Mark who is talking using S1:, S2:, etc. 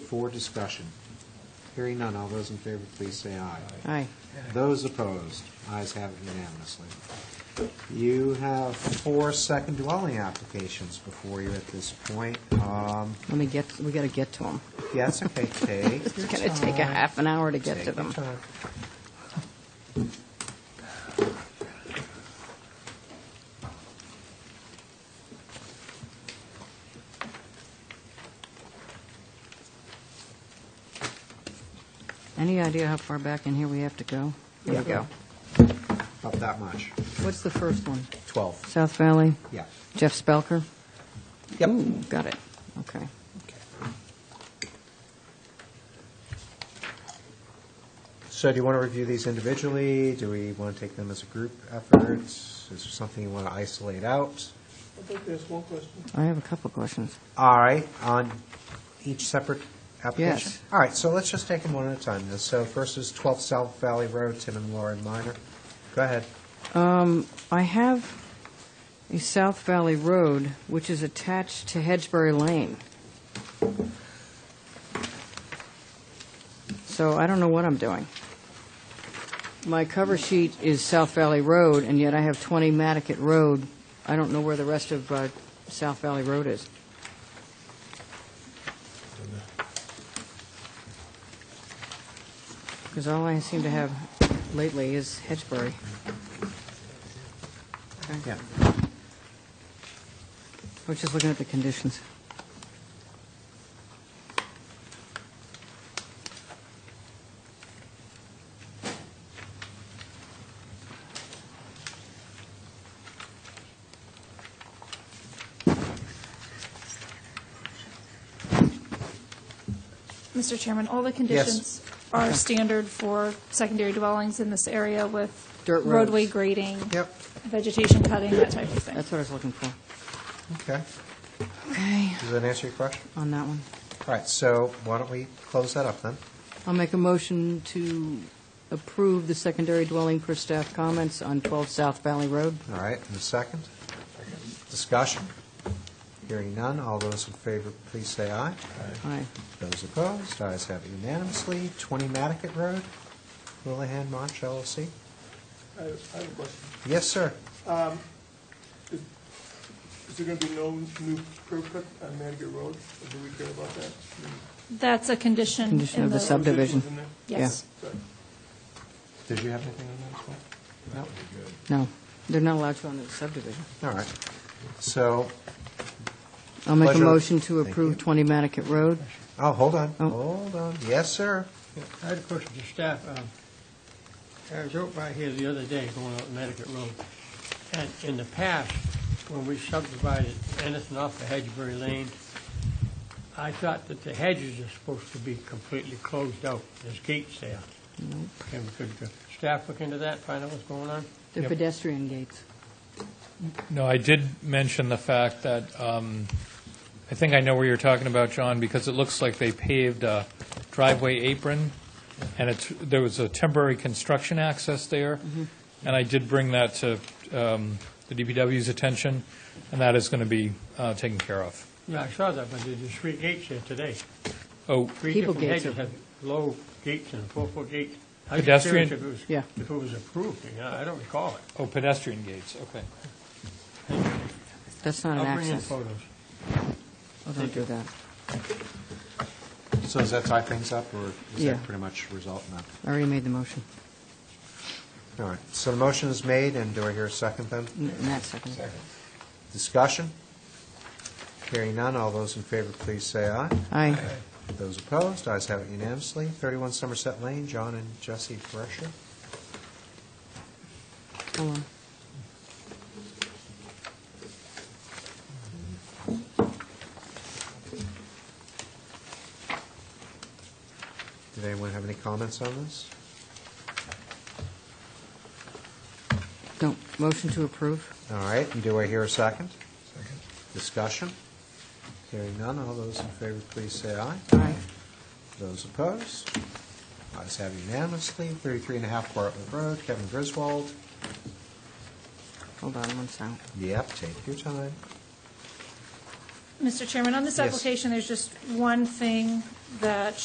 S1: for discussion? Hearing none, all those in favor, please say aye.
S2: Aye.
S1: Those opposed, ayes have it unanimously. You have four second dwelling applications before you at this point. Um,
S2: Let me get, we got to get to them.
S1: Yes, okay, take
S2: It's going to take a half an hour to get to
S1: Take your
S2: them.
S1: time.
S2: Any idea how far back in here we have to go? Here we go.
S1: About Oh, that much.
S2: What's the first one?
S1: 12,
S2: South Valley?
S1: yeah.
S2: Jeff Spelker?
S1: Yep.
S2: Ooh, Got it. Okay.
S1: So do you want to review these individually? Do we want to take them as a group effort? Is there something you want to isolate out?
S3: I think there's one question.
S2: I have a couple questions.
S1: All right, on each separate application?
S2: Yes.
S1: All right, so let's just take them one at a time. So first is 12 South Valley Road, Tim and Lauren Minor. Go ahead.
S2: Um, I have a South Valley Road, which is attached to Hedgesbury Lane. So I don't know what I'm doing. My cover sheet is South Valley Road, and yet I have 20 Matticat Road. I don't know where the rest of uh, South Valley Road is. Because all I seem to have lately is Hedgesbury.
S1: Yeah.
S2: We're just looking at the conditions.
S4: Mr. Chairman, all the conditions are standard for secondary dwellings in this area with
S2: Dirt roads.
S4: roadway grading,
S1: Yep,
S4: vegetation cutting, that type of thing.
S2: That's what I was looking for.
S1: okay.
S2: Okay,
S1: Does that answer your question?
S2: on that one.
S1: All right, so why don't we close that up then?
S2: I'll make a motion to approve the secondary dwelling per staff comments on 12 South Valley Road.
S1: All right, and a second? Discussion? Hearing none, all those in favor, please say aye.
S2: Aye.
S1: Those opposed, ayes have it unanimously. 20 Matticat Road, Willihan March LLC.
S3: I I have a question.
S1: Yes, sir.
S3: Is there going to be no new curb cut on Manigat Road? Or do we care about that?
S4: That's a condition in the...
S2: Condition of the sub- Subdivision.
S3: Was it in there?
S4: Yes.
S3: Sorry.
S1: Did you have anything on that No.
S2: No, they're not allowed to on the subdivision.
S1: All right. So,
S2: I'll make a
S1: Pleasure.
S2: motion to
S1: Thank
S2: approve
S1: you.
S2: 20 Matticat Road.
S1: oh, hold on,
S2: Oh.
S1: hold on. Yes, sir.
S5: Yeah, I had a question to staff. Uh, I was out by here the other day going up Connecticut Road, and in the past, when we subdivided anything off of Hedgesbury Lane, I thought that the hedges are supposed to be completely closed out. There's gates there. Can we, could the staff look into that, find out what's going on?
S2: They're
S6: Yep.
S2: pedestrian gates.
S6: No, I did mention the fact that, um, I think I know where you're talking about, John, because it looks like they paved a driveway apron, and it's, there was a temporary construction access there, and I did bring that to um, the DPW's attention, and that is going to be uh, taken care of.
S5: Yeah, I saw that, but there's just three gates there today.
S6: Oh,
S5: Three
S2: People
S5: different
S2: gates
S5: hedges
S2: are-
S5: have low gates and four-foot gates. I was just
S6: Pedestrian-
S5: curious if it was-
S2: Yeah.
S5: If it was approved, you know, I don't recall it.
S6: oh, pedestrian gates, okay.
S2: That's not an
S5: I'll bring in
S2: access.
S5: photos.
S2: Oh, Don't do that.
S1: So does that tie things up, or is
S2: Yeah.
S1: that pretty much result in that?
S2: I already made the motion.
S1: All right, so the motion is made, and do I hear a second then?
S2: N- Matt seconded.
S1: Discussion? Hearing none, all those in favor, please say aye.
S2: Aye.
S1: Those opposed, ayes have it unanimously. 31 Somerset Lane, John and Jesse Fresher.
S2: Hold on.
S1: Did anyone have any comments on this?
S2: No, motion to approve.
S1: All right, and do I hear a second? Second. Discussion? Hearing none, all those in favor, please say aye.
S2: Aye.
S1: Those opposed? Ayes have unanimously. 33 and a half Bartlett Road, Kevin Griswold.
S2: Hold on one second.
S1: Yep, take your time.
S4: Mr. Chairman, on this
S1: Yes.
S4: application, there's just one thing that